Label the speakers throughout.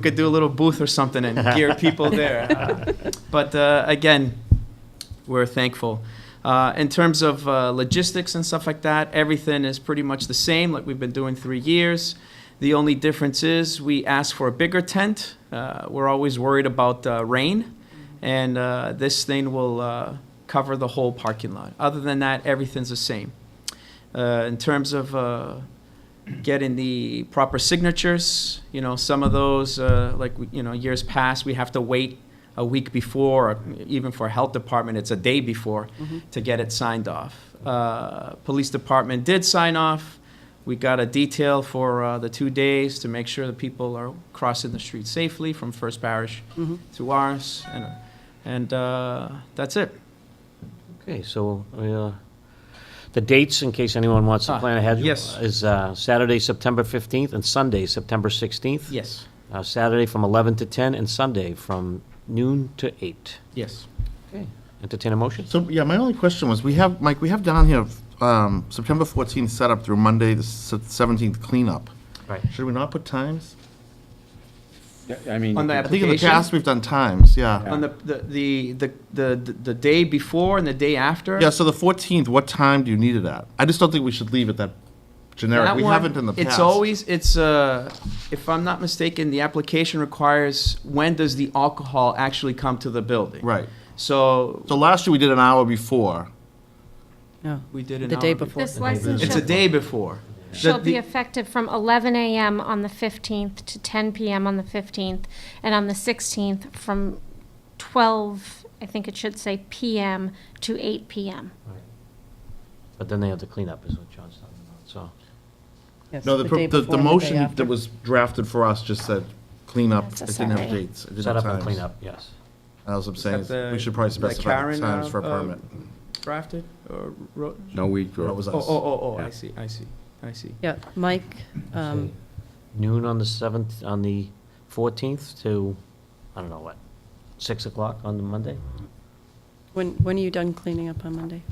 Speaker 1: could do a little booth or something and gear people there. But uh, again, we're thankful. Uh, In terms of uh, logistics and stuff like that, everything is pretty much the same, like we've been doing three years. The only difference is we ask for a bigger tent. Uh, We're always worried about uh, rain, and uh, this thing will uh, cover the whole parking lot. Other than that, everything's the same. Uh, In terms of uh, getting the proper signatures. You know, some of those, uh, like, we- you know, years past, we have to wait a week before, or even for health department, it's a day before to get it signed off. Uh, Police department did sign off. We got a detail for uh, the two days to make sure that people are crossing the street safely from First Parish to ours, and, and uh, that's it.
Speaker 2: Okay, so, uh, the dates, in case anyone wants to
Speaker 1: Ah,
Speaker 2: plan ahead.
Speaker 1: yes.
Speaker 2: Is uh, Saturday, September 15th, and Sunday, September 16th.
Speaker 1: Yes,
Speaker 2: Uh, Saturday from 11 to 10, and Sunday from noon to 8.
Speaker 1: yes.
Speaker 2: Okay, entertain a motion?
Speaker 3: So, yeah, my only question was, we have, Mike, we have down here, um, September 14th setup through Monday, the s- 17th cleanup.
Speaker 2: Right.
Speaker 3: Should we not put times?
Speaker 4: Yeah, I mean,
Speaker 1: On the
Speaker 3: I think in the
Speaker 1: Application?
Speaker 3: past, we've done times, yeah.
Speaker 1: On the, the- the, the, the the day before and the day after.
Speaker 3: Yeah, so the 14th, what time do you need it at? I just don't think we should leave it that generic.
Speaker 1: That
Speaker 3: We
Speaker 1: one,
Speaker 3: haven't in the past.
Speaker 1: It's always, it's, uh, if I'm not mistaken, the application requires, when does the alcohol actually come to the building?
Speaker 3: Right.
Speaker 1: So
Speaker 3: So last year, we did an hour before.
Speaker 5: No,
Speaker 1: we did an
Speaker 5: the day
Speaker 1: hour
Speaker 5: before.
Speaker 6: This license
Speaker 1: It's a
Speaker 6: shall,
Speaker 1: day before.
Speaker 6: shall
Speaker 1: the-
Speaker 6: be effective from 11 a.m. on the 15th to 10 p.m. on the 15th, and on the 16th from 12, I think it should say p.m. to 8 p.m.
Speaker 2: But then they have the cleanup, is what John's talking about, so.
Speaker 5: Yes,
Speaker 3: No, the,
Speaker 5: day
Speaker 3: pro- the,
Speaker 5: before
Speaker 3: the
Speaker 5: and day
Speaker 3: motion
Speaker 5: after.
Speaker 3: that was drafted for us just said cleanup. It
Speaker 6: That's a
Speaker 3: didn't have
Speaker 6: Saturday.
Speaker 3: dates. It didn't
Speaker 2: Set up
Speaker 3: have
Speaker 2: and
Speaker 3: times.
Speaker 2: clean up, yes.
Speaker 3: That's what I'm saying,
Speaker 1: Is that
Speaker 3: is
Speaker 1: the-
Speaker 3: we should probably
Speaker 1: is that
Speaker 3: specify
Speaker 1: Karen,
Speaker 3: times for a
Speaker 1: uh, uh,
Speaker 3: permit.
Speaker 1: Drafted or wrote?
Speaker 4: no weed
Speaker 3: That
Speaker 4: grow.
Speaker 3: was
Speaker 1: Oh,
Speaker 3: us.
Speaker 1: oh, oh, oh, I
Speaker 4: Yeah.
Speaker 1: see, I see, I see.
Speaker 5: Yeah, Mike, um,
Speaker 2: Noon on the 7th, on the 14th to, I don't know what, 6 o'clock on the Monday?
Speaker 5: when, when are you done cleaning up on Monday,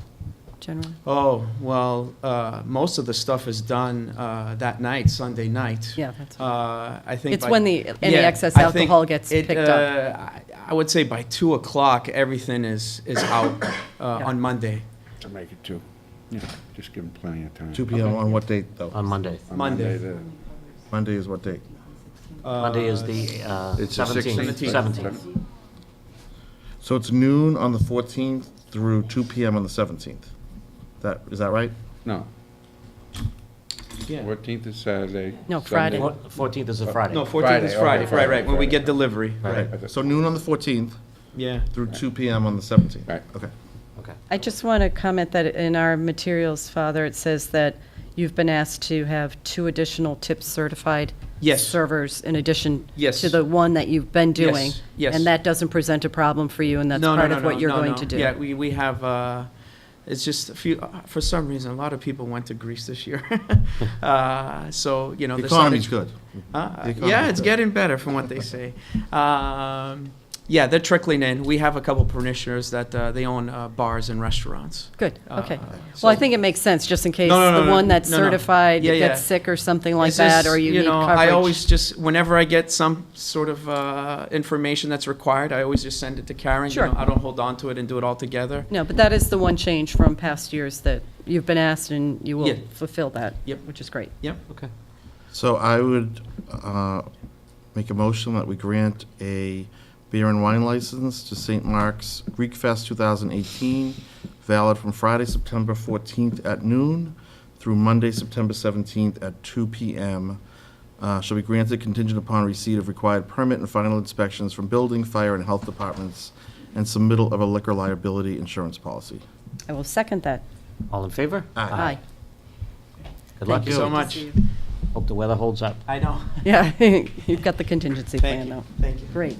Speaker 5: generally?
Speaker 1: Oh, well, uh, most of the stuff is done, uh, that night, Sunday night.
Speaker 5: Yeah, that's,
Speaker 1: Uh, I think.
Speaker 5: It's
Speaker 1: by-
Speaker 5: when the- any
Speaker 1: Yeah,
Speaker 5: excess
Speaker 1: I think
Speaker 5: alcohol gets
Speaker 1: it,
Speaker 5: picked up.
Speaker 1: uh, I- I would say by two o'clock, everything is, is out, uh, on Monday,
Speaker 4: To make it two. Yeah, just give them plenty of time.
Speaker 3: 2 PM on what date, though?
Speaker 1: Um,
Speaker 2: On Monday.
Speaker 4: On
Speaker 1: Monday.
Speaker 4: the-
Speaker 3: Monday is what date?
Speaker 2: Monday is the uh,
Speaker 4: It's the
Speaker 2: 17th.
Speaker 4: 16th.
Speaker 2: 17th.
Speaker 3: So it's noon on the 14th through 2 PM on the 17th. That, is that right?
Speaker 4: No,
Speaker 1: yeah.
Speaker 4: 14th is Saturday.
Speaker 5: No,
Speaker 4: Sunday-
Speaker 5: Friday.
Speaker 2: Four- 14th is a Friday.
Speaker 1: No, 14th is Friday,
Speaker 4: Friday, okay,
Speaker 1: right, right, when we
Speaker 4: Friday.
Speaker 1: get delivery, right,
Speaker 3: Right. So noon on the 14th
Speaker 1: yeah.
Speaker 3: through 2 PM on the 17th.
Speaker 4: Right.
Speaker 3: Okay.
Speaker 2: Okay.
Speaker 5: I just want to comment that in our materials, Father, it says that you've been asked to have two additional tip certified
Speaker 1: Yes.
Speaker 5: servers in addition
Speaker 1: Yes.
Speaker 5: to the one that you've been doing.
Speaker 1: yes.
Speaker 5: And that doesn't present a problem for you, and that's
Speaker 1: No, no,
Speaker 5: part
Speaker 1: no,
Speaker 5: of what
Speaker 1: no,
Speaker 5: you're
Speaker 1: no,
Speaker 5: going
Speaker 1: no.
Speaker 5: to do.
Speaker 1: Yeah, we, we have, uh, it's just a few, uh, for some reason, a lot of people went to Greece this year. Uh, So, you know.
Speaker 3: The
Speaker 1: there's something-
Speaker 3: economy's good.
Speaker 1: Uh,
Speaker 3: The economy's
Speaker 1: Yeah, it's
Speaker 3: good.
Speaker 1: getting better from what they say. Um, Yeah, they're trickling in. We have a couple parishioners that, uh, they own uh, bars and restaurants.
Speaker 5: Good,
Speaker 1: Uh,
Speaker 5: okay.
Speaker 1: so-
Speaker 5: Well, I think it makes sense, just in case
Speaker 1: No, no, no,
Speaker 5: the
Speaker 1: no,
Speaker 5: one that's
Speaker 1: no, no.
Speaker 5: certified
Speaker 1: Yeah,
Speaker 5: gets
Speaker 1: yeah.
Speaker 5: sick or something like
Speaker 1: It's
Speaker 5: that,
Speaker 1: just,
Speaker 5: or you need
Speaker 1: know,
Speaker 5: coverage.
Speaker 1: I always just, whenever I get some sort of uh, information that's required, I always just send it to Karen. you
Speaker 5: Sure.
Speaker 1: know, I don't hold on to it and do it all together.
Speaker 5: No, but that is the one change from past years that you've been asked, and you
Speaker 1: Yeah.
Speaker 5: will fulfill that,
Speaker 1: Yep.
Speaker 5: which is great.
Speaker 1: Yep.
Speaker 2: Okay.
Speaker 3: So I would uh, make a motion that we grant a beer and wine license to St. Mark's Greek Fest 2018, valid from Friday, September 14th at noon through Monday, September 17th at 2 PM. Uh, Shall be granted contingent upon receipt of required permit and final inspections from building, fire, and health departments, and submittal of a liquor liability insurance policy.
Speaker 5: I will second that.
Speaker 2: All in favor?
Speaker 5: Aye.
Speaker 2: Good luck.
Speaker 1: Thank you so much.
Speaker 2: Hope the weather holds up.
Speaker 1: I know.
Speaker 5: Yeah, you've got the contingency
Speaker 1: Thank
Speaker 5: plan,
Speaker 1: you.
Speaker 5: though.
Speaker 1: Thank you.
Speaker 5: Great.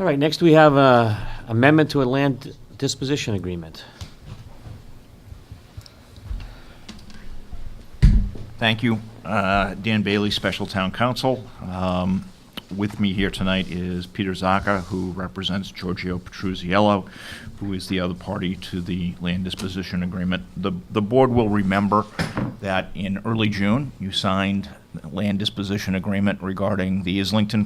Speaker 2: All right, next we have uh, amendment to a land disposition agreement.
Speaker 7: Thank you. Uh, Dan Bailey, Special Town Council. Um, With me here tonight is Peter Zaka, who represents Giorgio Petruzziello, who is the other party to the land disposition agreement. The the board will remember that in early June, you signed land disposition agreement regarding the Islington